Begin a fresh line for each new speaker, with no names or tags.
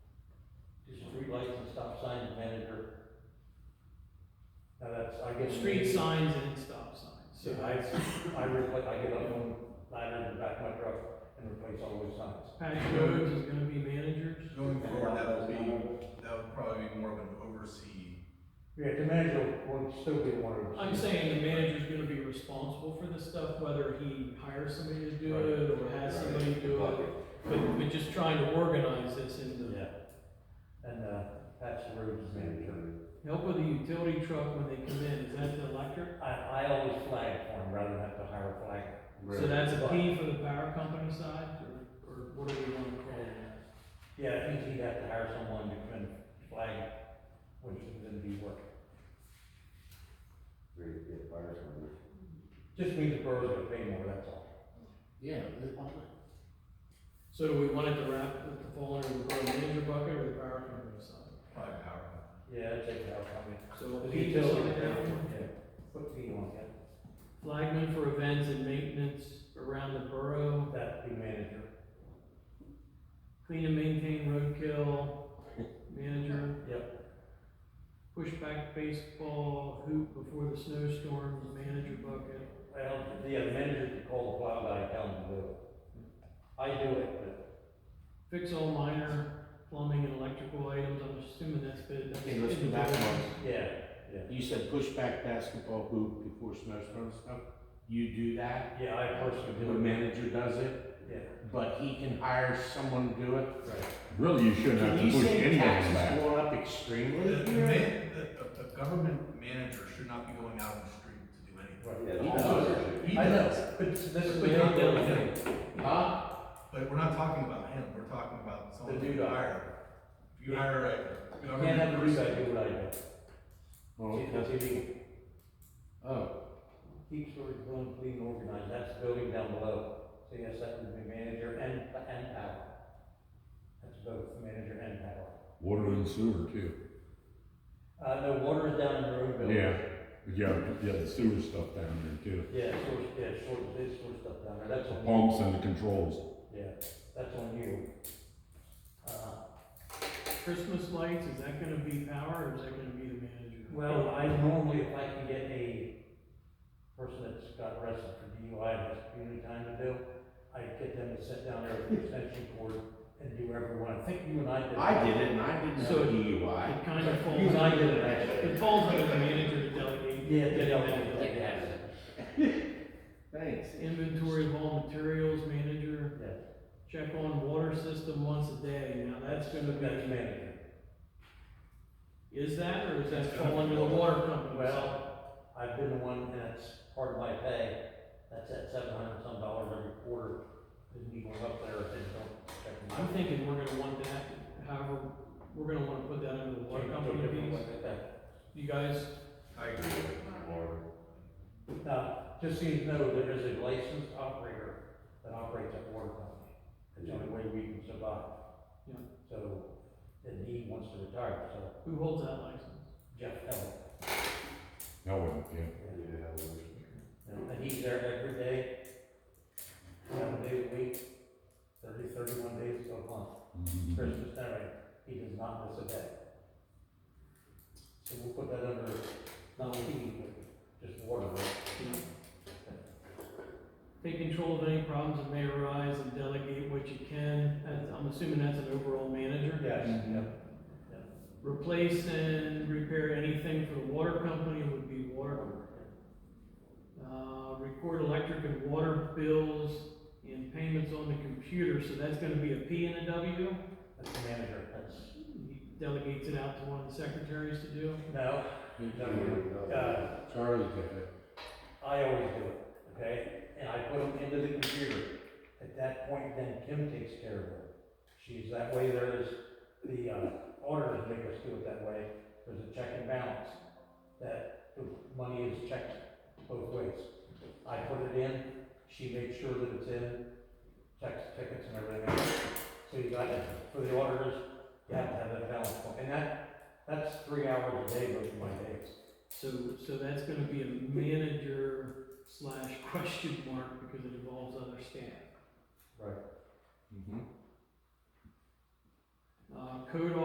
lights and stop sign manager. Now that's, I get.
Street signs and stop signs.
So I, I replace, I get up on ladder in the back of my truck and replace all those signs.
Patty Rhodes is gonna be managers.
Going forward, that will be, that would probably be more of an oversee.
Yeah, the manager will still be one of.
I'm saying the manager's gonna be responsible for this stuff, whether he hires somebody to do
Right.
it or has somebody do it. But, but just trying to organize this and
Yeah. And, uh, that's the road manager.
help with the utility truck when they come in, is that the electric?
I, I always flag for him rather than have to hire a flag.
So that's a P for the power company side, or, or what do we wanna call it?
Yeah, I think he'd have to hire someone to can flag it when he would be working.
Great, good fire department.
Just means the borough's gonna pay more, that's all.
Yeah.
So do we want it to wrap, with the fall under the borough manager bucket or the power company side?
Probably power.
Yeah, that's it, I'll come in.
So
The
P side,
utility,
that one.
yeah, put P on that,
flagman for events and maintenance around the borough,
that'd be manager.
clean and maintain roadkill, manager.
Yep.
Pushback baseball, hoop before the snowstorms, manager bucket.
Well, yeah, the manager could call the plow guy, and tell him to do it. I do it, but
Fix all minor plumbing and electrical items, I'm assuming that's been.
Okay, let's go back one.
yeah,
You said push back basketball hoop before snowstorm stuff. You do that?
yeah, I personally
The
do it,
manager does it,
yeah,
but he can hire someone to do it?
right.
Really, you shouldn't have
Can
to
you
push
say
anybody
taxes
back.
going up
The,
extremely
the,
here?
man- the, the government manager should not be going out on the street to do anything.
right.
He
I know,
does,
but this is
But
the
you
other
don't.
thing.
Huh?
but we're not talking about him, we're talking about someone
The
who
new
you
guy.
hire. If you hire a
You can't have
government
the roof
person,
guy do what I do.
Oh,
See, that's
okay.
illegal.
Oh,
Keep sort of going clean and organized, that's the building down below. So yes, that would be manager and, and power. That's both manager and power.
Water and sewer too.
Uh, no, water is down in the room building.
Yeah, yeah, yeah, the sewer stuff down there too.
Yeah, source, yeah, source, this source stuff down there, that's
The
on. you.
pumps and the controls.
Yeah, that's on you. Uh,
Christmas lights, is that gonna be power or is that gonna be the manager?
well, I normally, if I can get a person that's got arrested for DUI and has community time to do, I get them to sit down there at the extension cord and do everyone. I think you and I did.
I did it and I didn't have
So-
a DUI.
It kind of
You
falls
and I
under,
did it actually.
it falls under the manager to delegate.
Yeah,
Get
they
it
don't
done.
get that.
Thanks.
Inventory of all materials, manager,
Yeah,
check on water system once a day, now that's gonna
that's
be,
manager.
is that, or does that fall under the water company?
Well, I've been the one, and it's part of my pay, that's at seven hundred some dollars every quarter, and you go up there and don't check my.
I'm thinking we're gonna want that, however, we're gonna wanna put that under the water company piece, you guys,
I agree.
Now, just so you know, there is a licensed operator that operates a water company. It's the only way we can survive.
Yeah.
So, and he wants to retire, so
who holds that license?
Jeff Hell,
That wouldn't, yeah.
and he's there every day, seven days a week, thirty, thirty-one days a month.
Mhm.
Christmas dinner, he does not miss a day. So we'll put that under, not heating, but just water.
Take control of any problems that may arise and delegate what you can, That's- I'm assuming that's an overall manager.
Yes, yeah.
Replace and repair anything for the water company would be water. Uh, record electric and water bills and payments on the computer, so that's gonna be a P and a W.
That's the manager, that's,
He delegates it out to one of the secretaries to do.
no, uh,
Charlie did it.
I always do it, okay? And I put them into the computer. At that point, then Kim takes care of it. She's, that way there is, the uh, auditors make us do it that way. There's a check and balance, that the money is checked both ways. I put it in, she makes sure that it's in, checks tickets and everything else. So you got, it for the auditors, you have to have that balance. And that, that's three hours a day, both of my days.
So, so that's gonna be a manager slash question mark because it involves other staff.
Right.
Mm-hmm.
Uh, code